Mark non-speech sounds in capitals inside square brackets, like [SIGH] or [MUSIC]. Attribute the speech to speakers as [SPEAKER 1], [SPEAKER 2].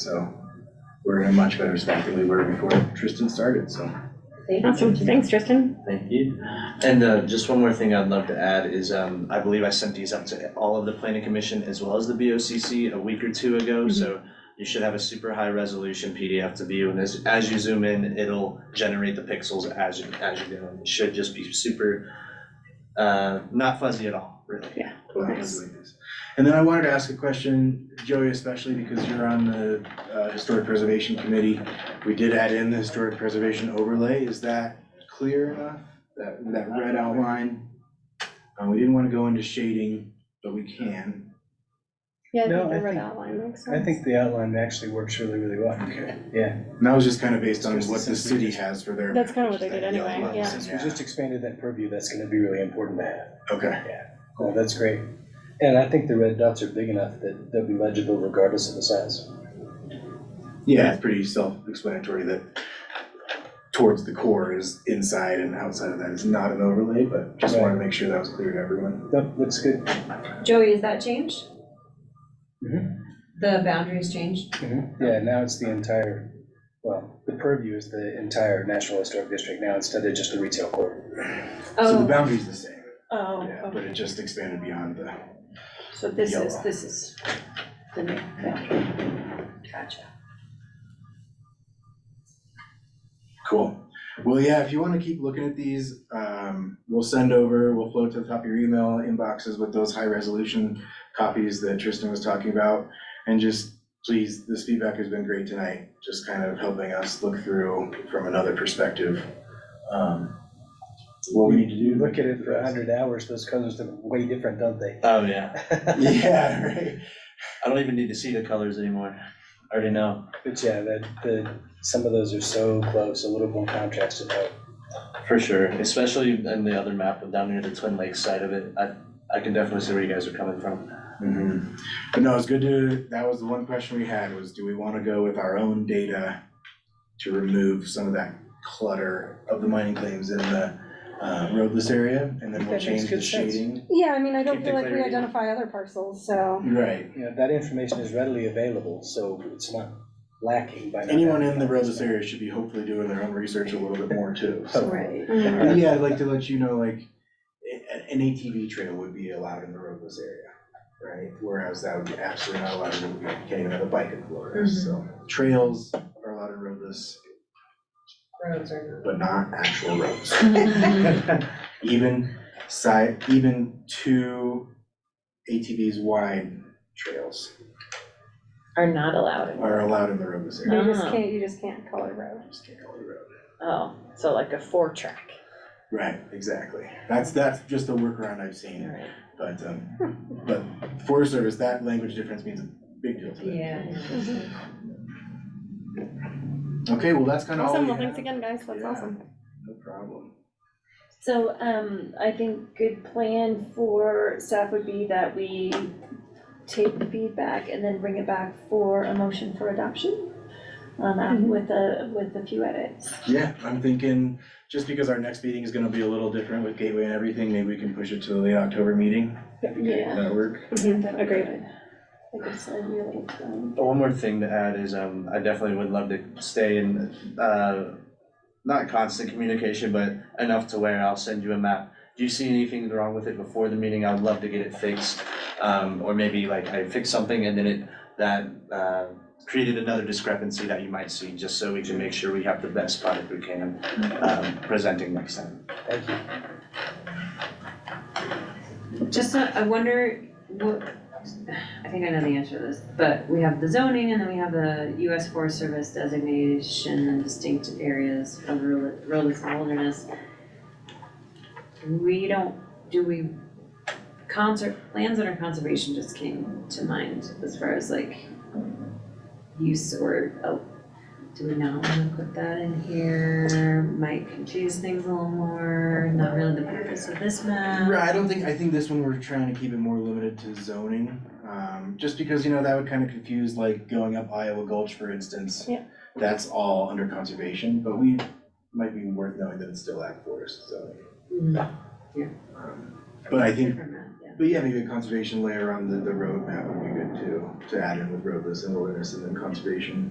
[SPEAKER 1] So we're in a much better spot than we were before Tristan started, so
[SPEAKER 2] Awesome, thanks Tristan.
[SPEAKER 3] Thank you. And uh, just one more thing I'd love to add is, um, I believe I sent these up to all of the planning commission as well as the BOCC a week or two ago, so you should have a super high resolution PDF to view, and as, as you zoom in, it'll generate the pixels as you, as you go. It should just be super, uh, not fuzzy at all, really.
[SPEAKER 1] we'll have to
[SPEAKER 2] Nice.
[SPEAKER 1] do this. And then I wanted to ask a question, Joey, especially because you're on the uh, Historic Preservation Committee. We did add in the Historic Preservation overlay. Is that clear enough? That, that red outline? Uh, We didn't want to go into shading, but we can.
[SPEAKER 2] Yeah, I
[SPEAKER 4] No,
[SPEAKER 2] think the
[SPEAKER 4] I
[SPEAKER 2] red
[SPEAKER 4] think-
[SPEAKER 2] outline makes sense.
[SPEAKER 4] I think the outline actually works really, really well.
[SPEAKER 1] Okay.
[SPEAKER 4] Yeah.
[SPEAKER 1] And that was just kind of based on
[SPEAKER 4] Just
[SPEAKER 1] what the
[SPEAKER 4] since we
[SPEAKER 1] city
[SPEAKER 4] just-
[SPEAKER 1] has for their.
[SPEAKER 2] That's kind of what they
[SPEAKER 1] that
[SPEAKER 2] did
[SPEAKER 1] yellow
[SPEAKER 2] anyway,
[SPEAKER 1] line.
[SPEAKER 2] yeah.
[SPEAKER 4] Since we just expanded that purview, that's gonna be really important to have.
[SPEAKER 1] Okay,
[SPEAKER 4] Oh, that's great. And I think the red dots are big enough that they'll be legible regardless of the size.
[SPEAKER 1] yeah, it's pretty self-explanatory that towards the core is inside and outside of that is not an overlay, but just wanted to make sure that was clear to everyone.
[SPEAKER 4] Nope, looks good.
[SPEAKER 5] Joey, is that changed?
[SPEAKER 4] Mhm.
[SPEAKER 1] Mm-hmm.
[SPEAKER 5] The boundaries changed?
[SPEAKER 4] Yeah, now it's the entire, well, the purview is the entire National Historic District now instead of just the retail court.
[SPEAKER 1] So the
[SPEAKER 5] Oh,
[SPEAKER 1] boundary's the same,
[SPEAKER 2] Oh,
[SPEAKER 1] yeah, but it just expanded beyond the,
[SPEAKER 6] So this is,
[SPEAKER 1] Yellow.
[SPEAKER 6] this is the new boundary. Gotcha.
[SPEAKER 1] cool. Well, yeah, if you wanna keep looking at these, um, we'll send over, we'll float to the top of your email inboxes with those high resolution copies that Tristan was talking about. And just, please, this feedback has been great tonight, just kind of helping us look through from another perspective. um, What we need to do.
[SPEAKER 4] Look at it for a hundred hours, those colors look way different, don't they?
[SPEAKER 3] Oh, yeah.
[SPEAKER 1] [LAUGHS] Yeah, right.
[SPEAKER 3] I don't even need to see the colors anymore. I already know.
[SPEAKER 4] But yeah, that, the, some of those are so close, a little more contrast to that.
[SPEAKER 3] For sure, especially in the other map down near the Twin Lakes side of it. I, I can definitely see where you guys are coming from.
[SPEAKER 1] Mhm. But no, it's good to, that was the one question we had was, do we wanna go with our own data to remove some of that clutter of the mining claims in the uh, roadless area? And then we'll
[SPEAKER 4] That makes
[SPEAKER 1] change the
[SPEAKER 4] good sense.
[SPEAKER 1] shading?
[SPEAKER 2] Yeah, I mean, I
[SPEAKER 3] Keep
[SPEAKER 2] don't
[SPEAKER 3] the
[SPEAKER 2] feel like we
[SPEAKER 3] clarity.
[SPEAKER 2] identify other parcels, so,
[SPEAKER 1] Right.
[SPEAKER 4] You know, that information is readily available, so it's not lacking by. not
[SPEAKER 1] Anyone in
[SPEAKER 4] having
[SPEAKER 1] the
[SPEAKER 4] that.
[SPEAKER 1] roadless area should be hopefully doing their own research a little bit more too. so.
[SPEAKER 5] Oh.
[SPEAKER 6] Right.
[SPEAKER 2] mm,
[SPEAKER 1] But yeah, I'd like to let you know, like, a- an ATV trail would be allowed in the roadless area, right? Whereas that would be absolutely not allowed, in- you can't even have a bike in Florida,
[SPEAKER 4] Mm-hmm.
[SPEAKER 1] so. Trails are allowed in roadless,
[SPEAKER 5] roads are
[SPEAKER 1] but not actual roads. Mm-hmm. [LAUGHS]
[SPEAKER 2] Mm-hmm.
[SPEAKER 1] Even side, even two ATVs wide trails
[SPEAKER 6] Are not allowed in.
[SPEAKER 1] are allowed in the roadless area.
[SPEAKER 2] you just
[SPEAKER 6] Ah.
[SPEAKER 2] can't, you just can't color road.
[SPEAKER 1] Just can't go to the road.
[SPEAKER 6] Oh, so like a four track.
[SPEAKER 1] Right, exactly. That's, that's just a workaround I've seen, but, um, but Forest Service, that language difference means a big deal to them.
[SPEAKER 5] Yeah.
[SPEAKER 1] Okay, well, that's kind of all
[SPEAKER 2] Awesome, well,
[SPEAKER 1] we
[SPEAKER 2] thanks
[SPEAKER 1] have.
[SPEAKER 2] again, guys, that's
[SPEAKER 1] Yeah.
[SPEAKER 2] awesome.
[SPEAKER 1] No problem.
[SPEAKER 6] So, um, I think good plan for staff would be that we take the feedback and then bring it back for a motion for adoption. Um,
[SPEAKER 2] Mhm.
[SPEAKER 6] with a, with a few edits.
[SPEAKER 1] Yeah, I'm thinking, just because our next meeting is gonna be a little different with Gateway and everything, maybe we can push it to the late October meeting.
[SPEAKER 6] Yeah.
[SPEAKER 1] That'll work.
[SPEAKER 2] Mhm, Agreed.
[SPEAKER 6] I guess I really, um,
[SPEAKER 3] One more thing to add is, um, I definitely would love to stay in, uh, not constant communication, but enough to where I'll send you a map. If you see anything wrong with it before the meeting, I'd love to get it fixed. Um, or maybe like I fix something and then it, that, uh, created another discrepancy that you might see, just so we can make sure we have the best product we can, um, presenting next time.
[SPEAKER 4] Thank you.
[SPEAKER 5] Just, uh, I wonder, what, I think I know the answer to this, but we have the zoning and then we have the US Forest Service designation and distinct areas of rural- wilderness and wilderness. We don't, do we, concert, lands under conservation just came to mind as far as like use or, oh, do we not wanna put that in here? Might confuse things a little more, not really the purpose of this map.
[SPEAKER 1] Right, I don't think, I think this one, we're trying to keep it more limited to zoning, um, just because, you know, that would kind of confuse, like, going up Iowa Gulch, for instance.
[SPEAKER 2] Yeah.
[SPEAKER 1] That's all under conservation, but we, might be worth knowing that it's still ag forest zoning.
[SPEAKER 5] Mhm.
[SPEAKER 1] Um, But I think
[SPEAKER 5] Different map, yeah.
[SPEAKER 1] But yeah, maybe a conservation layer on the, the roadmap would be good too, to add in with roadless and wilderness and then conservation.